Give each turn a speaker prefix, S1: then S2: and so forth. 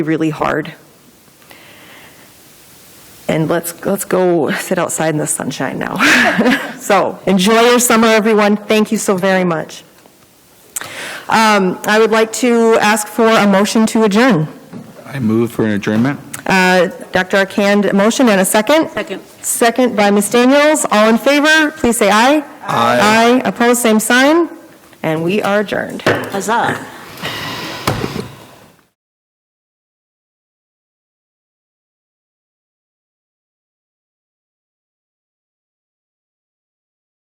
S1: really hard. And let's, let's go sit outside in the sunshine now. So, enjoy your summer, everyone. Thank you so very much. Um, I would like to ask for a motion to adjourn.
S2: I move for an adjournment.
S1: Uh, Dr. Arcand, a motion and a second?
S3: Second.
S1: Second by Ms. Daniels. All in favor, please say aye.
S2: Aye.
S1: Aye, opposed, same sign, and we are adjourned.
S3: Huzzah.